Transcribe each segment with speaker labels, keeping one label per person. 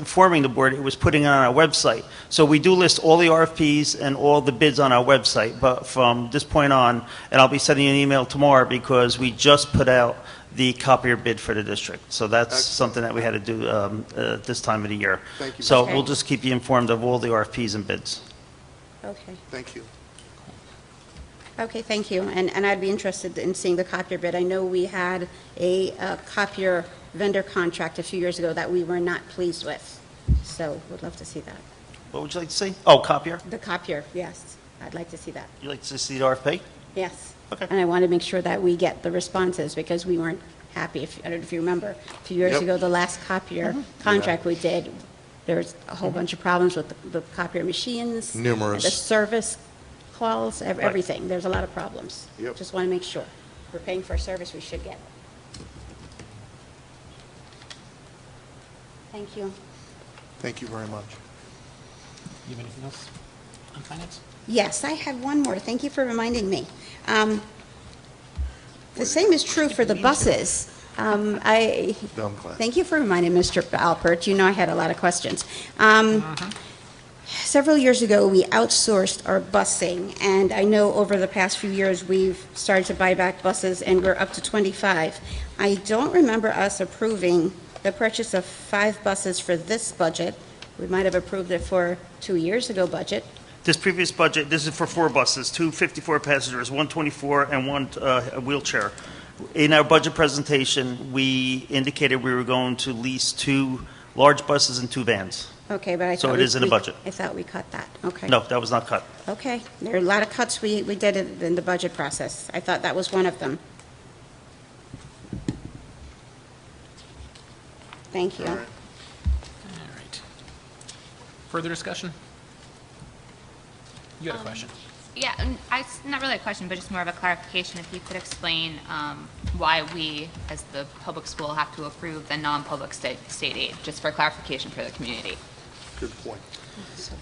Speaker 1: informing the board, it was putting it on our website. So we do list all the RFPs and all the bids on our website, but from this point on, and I'll be sending you an email tomorrow because we just put out the copier bid for the district. So that's something that we had to do um, uh, this time of the year.
Speaker 2: Thank you,
Speaker 1: So
Speaker 2: Mr.
Speaker 1: we'll just keep you informed of all the RFPs and bids.
Speaker 3: Okay,
Speaker 2: Thank you.
Speaker 3: okay, thank you. And, and I'd be interested in seeing the copier bid. I know we had a uh, copier vendor contract a few years ago that we were not pleased with, so would love to see that.
Speaker 1: What would you like to see? Oh, copier?
Speaker 3: The copier, yes, I'd like to see that,
Speaker 1: You'd like to see the RFP?
Speaker 3: yes.
Speaker 1: Okay.
Speaker 3: And I want to make sure that we get the responses, because we weren't happy, if, I don't know if you remember, a few years
Speaker 2: Yep.
Speaker 3: ago, the last copier contract we did, there was a whole bunch of problems with the- the copier machines.
Speaker 4: Numerous.
Speaker 3: The service calls, ev- everything, there's a lot of problems.
Speaker 2: Yep.
Speaker 3: Just want to make sure, we're paying for a service we should get. Thank you.
Speaker 2: Thank you very much.
Speaker 5: You have anything else on finance?
Speaker 3: Yes, I have one more. Thank you for reminding me. Um, The same is true for the buses. Um, I,
Speaker 2: Dumb class.
Speaker 3: thank you for reminding Mr. Alpert. You know I had a lot of questions. Um, Several years ago, we outsourced our busing, and I know over the past few years, we've started to buy back buses, and we're up to 25. I don't remember us approving the purchase of five buses for this budget. We might have approved it for two years ago budget.
Speaker 6: This previous budget, this is for four buses, two 54 passengers, one 24, and one uh, wheelchair.
Speaker 1: In our budget presentation, we indicated we were going to lease two large buses and two vans.
Speaker 3: Okay, but I thought.
Speaker 1: So it
Speaker 3: we-
Speaker 1: is in the
Speaker 3: we-
Speaker 1: budget.
Speaker 3: I thought we cut that, okay.
Speaker 1: No, that was not cut.
Speaker 3: Okay, there are a lot of cuts we, we did in in the budget process. I thought that was one of them. Thank you.
Speaker 2: All right.
Speaker 5: All right. Further discussion? You had a question.
Speaker 7: Yeah, and I- it's not really a question, but just more of a clarification. If you could explain um, why we, as the public school, have to approve the non-public state state aid, just for clarification for the community.
Speaker 2: Good point.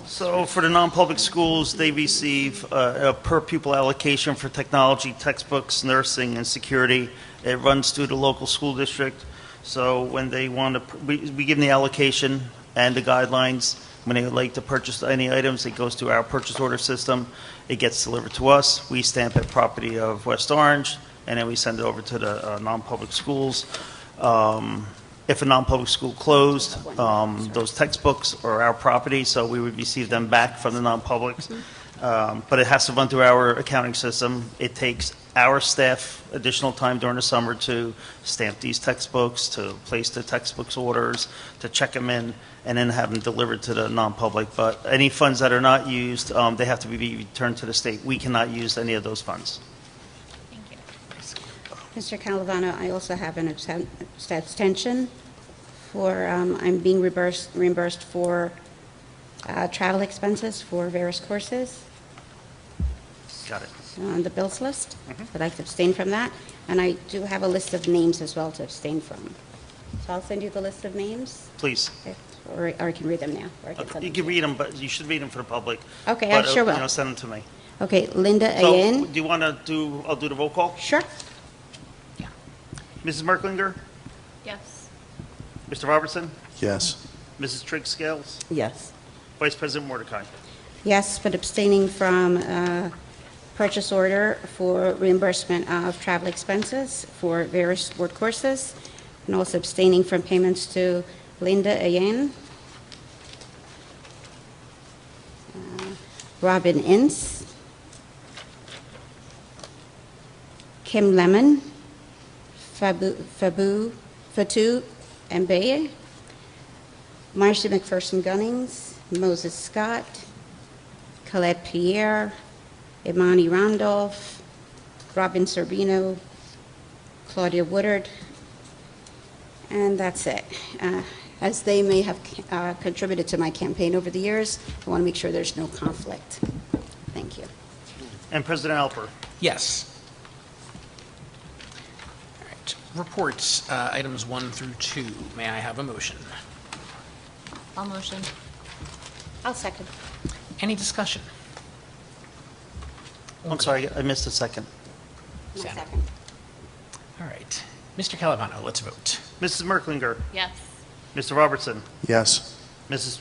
Speaker 1: So for the non-public schools, they receive uh, a per pupil allocation for technology, textbooks, nursing, and security. It runs through the local school district. So when they want to, we we give them the allocation and the guidelines. When they would like to purchase any items, it goes through our purchase order system. It gets delivered to us. We stamp it property of West Orange, and then we send it over to the uh, non-public schools. Um, If a non-public school closed, um, those textbooks are our property, so we would receive them back from the non-publics. Um, But it has to run through our accounting system. It takes our staff additional time during the summer to stamp these textbooks, to place the textbooks orders, to check them in, and then have them delivered to the non-public. But any funds that are not used, um, they have to be returned to the state. We cannot use any of those funds.
Speaker 7: Thank you.
Speaker 3: Mr. Calavano, I also have an absen- abstention for, um, I'm being reimbursed, reimbursed for uh, travel expenses for various courses.
Speaker 1: Got it.
Speaker 3: on the bills list.
Speaker 1: Mm-hmm.
Speaker 3: I'd like to abstain from that. And I do have a list of names as well to abstain from. So I'll send you the list of names,
Speaker 1: Please.
Speaker 3: if- or or I can read them now. or I can send
Speaker 1: You
Speaker 3: them
Speaker 1: can
Speaker 3: to
Speaker 1: read them, but you should read them for the public.
Speaker 3: Okay, I
Speaker 1: But, uh,
Speaker 3: sure
Speaker 1: You know,
Speaker 3: will.
Speaker 1: send them to me.
Speaker 3: Okay, Linda
Speaker 1: So,
Speaker 3: Ayen.
Speaker 1: do you want to do, I'll do the roll call.
Speaker 3: Sure.
Speaker 1: Mrs. Merklinger?
Speaker 7: Yes.
Speaker 1: Mr. Robertson?
Speaker 4: Yes.
Speaker 1: Mrs. Trigg Scales?
Speaker 8: Yes.
Speaker 1: Vice President Mordecai?
Speaker 3: Yes, but abstaining from uh, purchase order for reimbursement of travel expenses for various sport courses, and also abstaining from payments to Linda Ayen, uh, Robin Ince, Kim Lemon, Fabu, Fabu, Fatu Mbeye, Marcy McPherson Gunnings, Moses Scott, Colette Pierre, Imani Randolph, Robin Sorbino, Claudia Woodard, and that's it. Uh, As they may have uh, contributed to my campaign over the years, I want to make sure there's no conflict. Thank you.
Speaker 1: And President Alper?
Speaker 5: Yes. All right. Reports, uh, items one through two. May I have a motion?
Speaker 7: All motion.
Speaker 3: I'll second.
Speaker 5: Any discussion?
Speaker 1: I'm sorry, I missed a second.
Speaker 3: I'll
Speaker 5: Second.
Speaker 3: second.
Speaker 5: All right. Mr. Calavano, let's vote.
Speaker 1: Mrs. Merklinger?
Speaker 7: Yes.
Speaker 1: Mr. Robertson?
Speaker 4: Yes.
Speaker 1: Mrs.